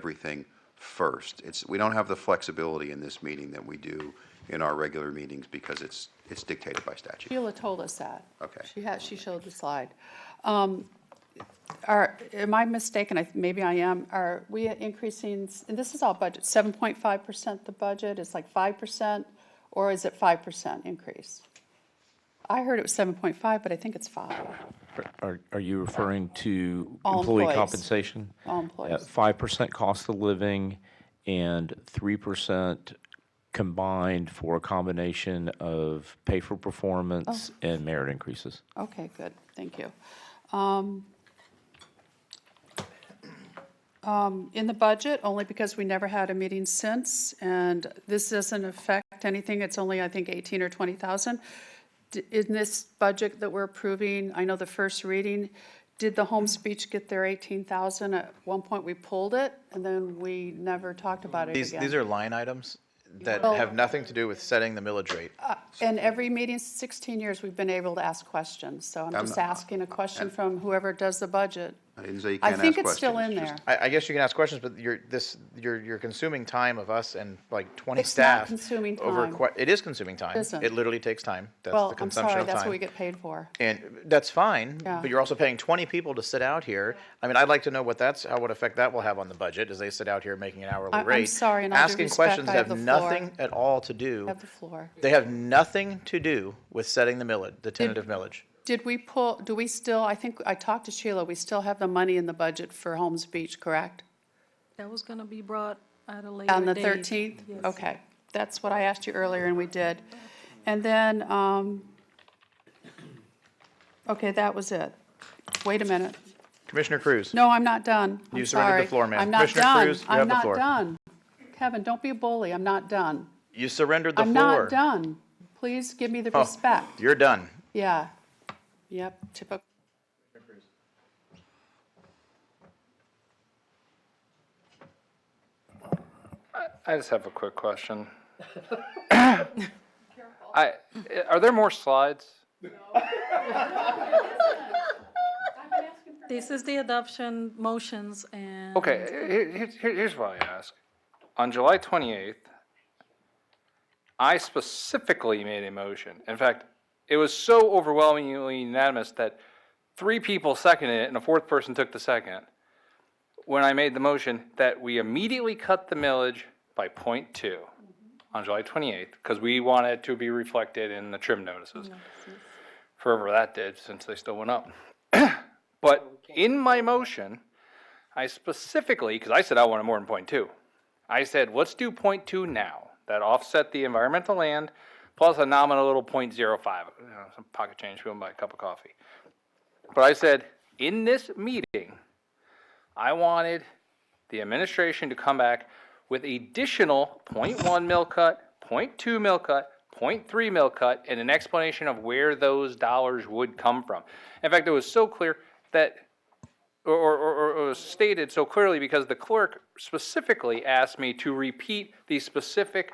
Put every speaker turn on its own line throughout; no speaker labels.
everything first. It's, we don't have the flexibility in this meeting that we do in our regular meetings because it's, it's dictated by statute.
Sheila told us that.
Okay.
She had, she showed the slide. Um, Are, am I mistaken? I- Maybe I am. Are we increasing, s- and this is all budget, 7.5% the budget? It's like 5%? Or is it 5% increase? I heard it was 7.5, but I think it's 5.
Are, are you referring to
All
employee
employees.
compensation?
All employees.
Five percent cost of living and three percent combined for a combination of pay for performance
Oh.
and merit increases.
Okay, good, thank you. Um, um, In the budget, only because we never had a meeting since, and this doesn't affect anything, it's only, I think, 18 or 20,000. D- In this budget that we're approving, I know the first reading, did the home speech get their 18,000? At one point, we pulled it, and then we never talked about it
These,
again.
these are line items that
Well-
have nothing to do with setting the millage rate.
And every meeting, 16 years, we've been able to ask questions, so I'm just asking a question from whoever does the budget.
I didn't say you
I
can't
think
ask
it's still in
questions,
there.
just-
I, I guess you can ask questions, but you're, this, you're, you're consuming time of us and like 20
It's not
staff.
consuming
over
time.
que- It is consuming time.
Isn't.
It literally takes time. That's
Well,
the
I'm
consumption
sorry,
of
that's what we
time.
get paid for.
And that's fine,
Yeah.
but you're also paying 20 people to sit out here. I mean, I'd like to know what that's, how what effect that will have on the budget as they sit out here making an
I-
hourly
I'm
rate.
sorry, in all due respect, I have
Asking questions
the floor.
have nothing at all to do.
Have the floor.
They have nothing to do with setting the millage, the tentative millage.
Did we pull, do we still, I think, I talked to Sheila, we still have the money in the budget for Holmes Beach, correct?
That was gonna be brought at a later date.
On the 13th?
Yes.
Okay, that's what I asked you earlier, and we did. And then, um, okay, that was it. Wait a minute.
Commissioner Cruz?
No, I'm not done. I'm
You surrendered the
sorry.
floor, ma'am.
I'm not
Commissioner
done.
Cruz, you have the
I'm
floor.
not done. Kevin, don't be a bully, I'm not done.
You surrendered the
I'm
floor.
not done. Please give me the
Oh,
respect.
You're done.
Yeah. Yep, typical.
I just have a quick question. I, are there more slides?
This is the adoption motions and.
Okay, here- here- here- here's what I ask. On July 28th, I specifically made a motion. In fact, it was so overwhelmingly unanimous that three people seconded it and a fourth person took the second. When I made the motion that we immediately cut the millage by point two on July 28th, because we want it to be reflected in the trim notices. Forever that did, since they still went up. But in my motion, I specifically, because I said I wanted more than point two. I said, let's do point two now. That offset the environmental land plus a nominal little point zero five, you know, some pocket change, people buy a cup of coffee. But I said, in this meeting, I wanted the administration to come back with additional point one mil cut, point two mil cut, point three mil cut, and an explanation of where those dollars would come from. In fact, it was so clear that or, or, or, or was stated so clearly because the clerk specifically asked me to repeat the specific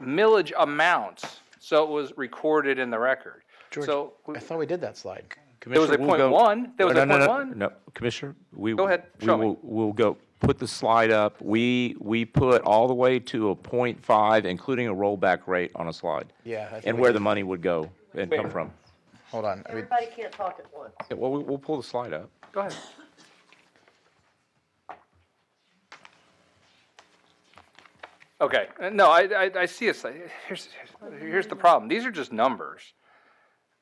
millage amounts, so it was recorded in the record. So,
I thought we did that slide.
there was a
Commissioner, we'll
point
go-
one, there was
No,
a
no,
point
no,
one.
No, Commissioner, we.
Go ahead,
we
show me.
will- We'll go, put the slide up. We, we put all the way to a point five, including a rollback rate on a slide.
Yeah, I think
And
we
where
did.
the money would go and come from.
Hold on. I mean,
Everybody can't talk at once.
Yeah, Well, we- we'll pull the slide up.
Go ahead. Okay, uh, no, I, I, I see it's, like- here's, here's- here's the problem, these are just numbers.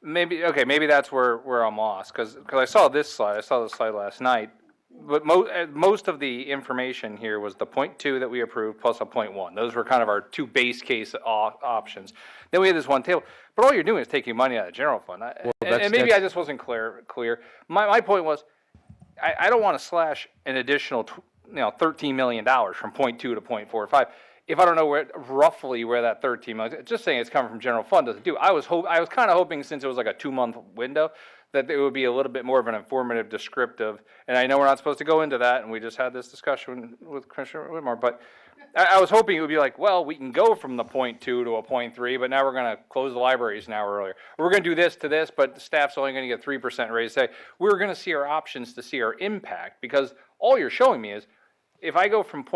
Maybe, okay, maybe that's where, where I'm lost, cause, 'cause I saw this slide, I saw this slide last night, but mo- uh, most of the information here was the point two that we approved plus a point one, those were kind of our two base case op- options. Then we had this one table, but all you're doing is taking money out of the general fund, I- and,
that's-
and maybe
that's-
I just wasn't clear, clear. My, my point was, I, I don't want to slash an additional, tw- you know, thirteen million dollars from point two to point four five. If I don't know where, roughly where that thirteen million, just saying it's coming from general fund doesn't do. I was hope, I was kind of hoping since it was like a two-month window, that it would be a little bit more of an informative descriptive. And I know we're not supposed to go into that, and we just had this discussion with Commissioner Whitmore, but I, I was hoping it would be like, well, we can go from the point two to a point three, but now we're gonna close the libraries an hour earlier. We're gonna do this to this, but the staff's only gonna get three percent raise. Say, we're gonna see our options to see our impact, because all you're showing me is if I go from point